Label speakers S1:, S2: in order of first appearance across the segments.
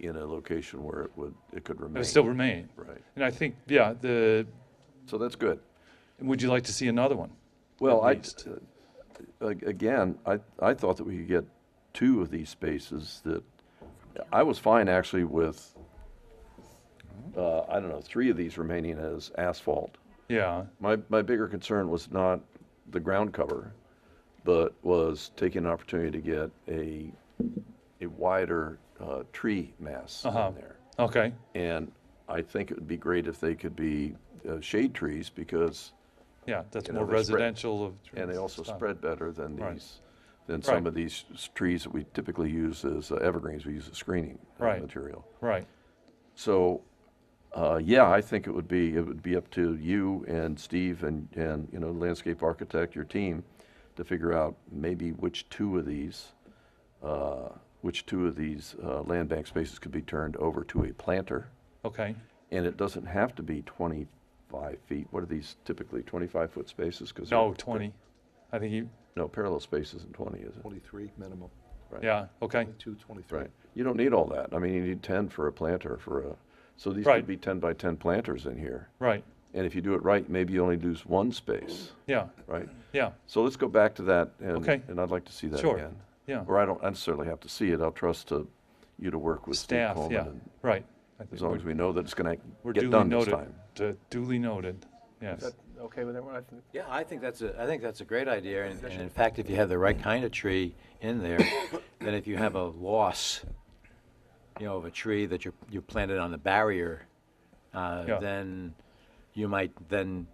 S1: in a location where it would, it could remain.
S2: It'll still remain.
S1: Right.
S2: And I think, yeah, the,
S1: So that's good.
S2: would you like to see another one?
S1: Well,
S2: At
S1: I,
S2: least.
S1: uh, ag- again, I, I thought that we could get two of these spaces that, I was fine actually with, uh, I don't know, three of these remaining as asphalt.
S2: Yeah,
S1: My, my bigger concern was not the ground cover, but was taking an opportunity to get a, a wider, uh, tree mass
S2: Uh-huh.
S1: in there.
S2: okay,
S1: And I think it would be great if they could be, uh, shade trees because
S2: yeah, that's
S1: You know,
S2: more
S1: they spread-
S2: residential of.
S1: And they also
S2: stuff.
S1: spread better than
S2: Right.
S1: these, than some
S2: Right.
S1: of these s- trees that we typically use as uh, evergreens, we use as screening uh,
S2: Right.
S1: material.
S2: Right,
S1: So, uh, yeah, I think it would be, it would be up to you and Steve and, and, you know, landscape architect, your team, to figure out maybe which two of these, uh, which two of these uh, land bank spaces could be turned over to a planter.
S2: okay,
S1: And it doesn't have to be 25 feet. What are these typically, 25-foot spaces? 'Cause they're-
S2: no, twenty, I think you,
S1: No, parallel space isn't 20, is it?
S3: 23 minimum,
S2: yeah, okay,
S3: 22, 23.
S1: Right. You don't need all that. I mean, you need 10 for a planter for a, so these
S2: Right.
S1: could be 10 by 10 planters in here.
S2: right,
S1: And if you do it right, maybe you only lose one space,
S2: yeah,
S1: right?
S2: yeah,
S1: So let's go back to that and,
S2: Okay.
S1: and I'd like to see that
S2: Sure.
S1: again.
S2: yeah.
S1: Or I don't necessarily have to see it. I'll trust to you to work with Steve
S2: Staff,
S1: Coleman.
S2: yeah,
S1: and-
S2: right. I think
S1: As long
S2: we're-
S1: as we know that it's going
S2: We're
S1: to get
S2: duly
S1: done this
S2: noted,
S1: time.
S2: Du- duly noted,
S3: Is
S2: yes,
S3: that okay with everyone? I think-
S4: Yeah, I think that's a, I think that's a great idea, and and in fact, if you have the right kind of tree in there, then if you have a loss, you know, of a tree that you, you planted on the barrier,
S2: Yeah.
S4: uh, then you might then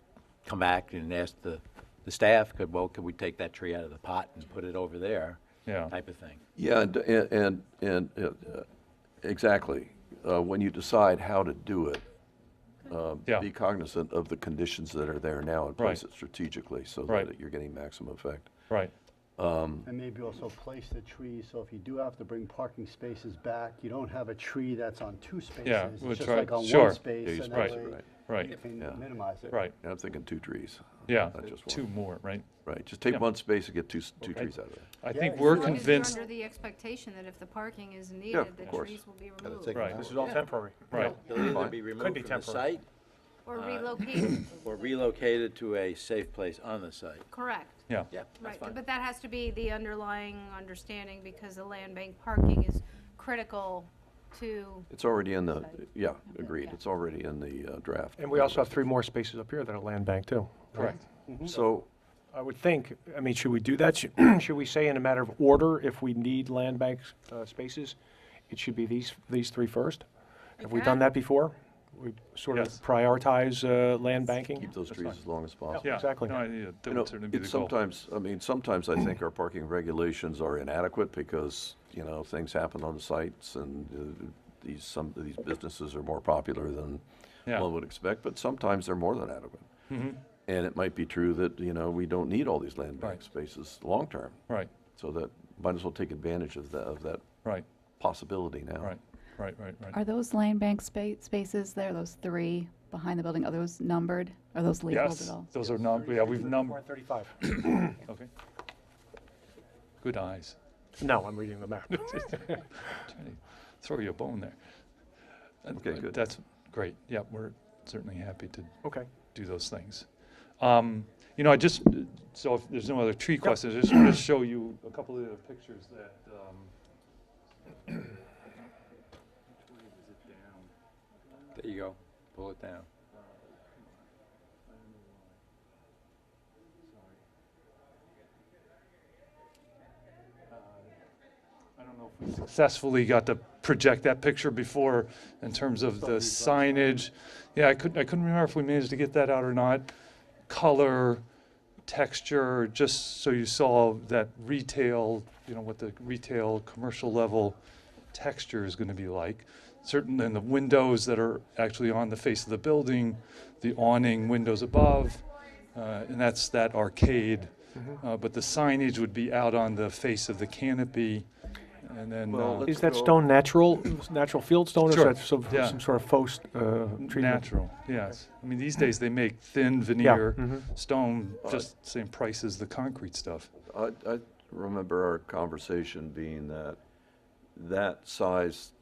S4: come back and ask the, the staff, could, well, could we take that tree out of the pot and put it over there?
S2: Yeah.
S4: Type of thing.
S1: Yeah, and, and, and, and, uh, exactly. Uh, When you decide how to do it,
S2: yeah,
S1: um, be cognizant of the conditions that are there now and place it strategically so
S2: Right.
S1: that you're getting maximum effect.
S2: right,
S5: And maybe also place the trees, so if you do have to bring parking spaces back, you don't have a tree that's on two spaces. It's
S2: we'll
S5: just
S2: try-
S5: like on
S2: sure.
S5: one
S1: Yeah,
S5: space,
S1: you
S5: and
S1: space
S5: that
S1: it
S5: way
S1: right.
S5: you
S2: right,
S1: Yeah.
S5: can minimize it.
S2: right,
S1: And I'm thinking two trees.
S2: yeah,
S1: Not just
S2: two
S1: one.
S2: more, right?
S1: Right, just take
S2: Yeah.
S1: one space and get two, s- two trees out of it.
S2: I
S5: Yeah,
S2: think
S5: as
S2: we're
S5: long as you're
S2: convinced,
S6: You're under the expectation that if the parking is
S1: of
S6: needed, the
S1: course.
S6: trees will be
S3: Gotta
S6: removed
S3: take
S2: Right.
S3: them
S7: This
S3: out.
S7: is all temporary.
S2: right,
S4: They'll either
S1: Fine.
S4: be
S7: be
S4: removed from the
S7: temporary.
S4: site
S6: or relocated,
S4: or relocated to a safe place on the site.
S6: correct.
S2: yeah,
S4: Yeah, that's
S6: Right,
S4: fine.
S6: but that has to be the underlying understanding because the land bank parking is critical to,
S1: It's already in the, yeah, agreed. It's already in the uh, draft.
S7: And we also have three more spaces up here that are land bank too.
S2: correct,
S1: So,
S7: I would think, I mean, should we do that? Should should we say in a matter of order, if we need land bank uh, spaces, it should be these, these three first? Have we done that before? We sort of
S2: Yes.
S7: prioritize uh, land banking?
S1: keep those trees as long as possible.
S2: yeah.
S7: Exactly.
S2: No, I- yeah, that
S1: You know,
S2: would certainly be
S1: it's
S2: the goal.
S1: sometimes, I mean, sometimes I think our parking regulations are inadequate because, you know, things happen on the sites and uh, these, some of these businesses are more popular than
S2: Yeah. Mm-hmm.
S1: one would expect, but sometimes they're more than adequate. And it might be true that, you know, we don't need all these land bank
S2: Right.
S1: spaces long-term,
S2: Right,
S1: so that, might as well take advantage of that, of that
S2: right,
S1: possibility now.
S2: right, right, right, right.
S8: Are those land bank spa- spaces there, those three behind the building, are those numbered? Are those labeled
S2: Yes,
S8: at all?
S2: those are num, yeah, we've numbered,
S7: 35.
S2: okay. Good eyes.
S7: No, I'm reading the map.
S2: Trying to Throw you a bone there. Uh,
S1: Okay,
S2: uh,
S1: good.
S2: That's great, yeah, we're certainly happy to
S7: Okay.
S2: do those things. Um, You know, I just, so if there's no other tree questions, I just want to show you a couple of the pictures that, um,
S4: There you go. Pull it down.
S2: I don't know if we successfully got to project that picture before in terms of the signage. Yeah, I couldn't, I couldn't remember if we managed to get that out or not. Color, texture, just so you saw that retail, you know, what the retail, commercial level texture is gonna be like. Certain, and the windows that are actually on the face of the building, the awning windows above, uh, and that's that arcade.
S1: Mm-hmm.
S2: Uh, But the signage would be out on the face of the canopy, and then
S1: Well,
S2: uh,
S1: let's-
S7: Is that
S1: go-
S7: stone natural, natural field stone, or is
S2: Sure,
S7: that some,
S2: yeah.
S7: some sort of faux uh, treatment?
S2: natural, yes. I mean, these days, they make thin veneer
S7: mhm.
S2: stone,
S1: Mm-hmm. Uh,
S2: just same price as the concrete stuff.
S1: I, I remember our conversation being that that size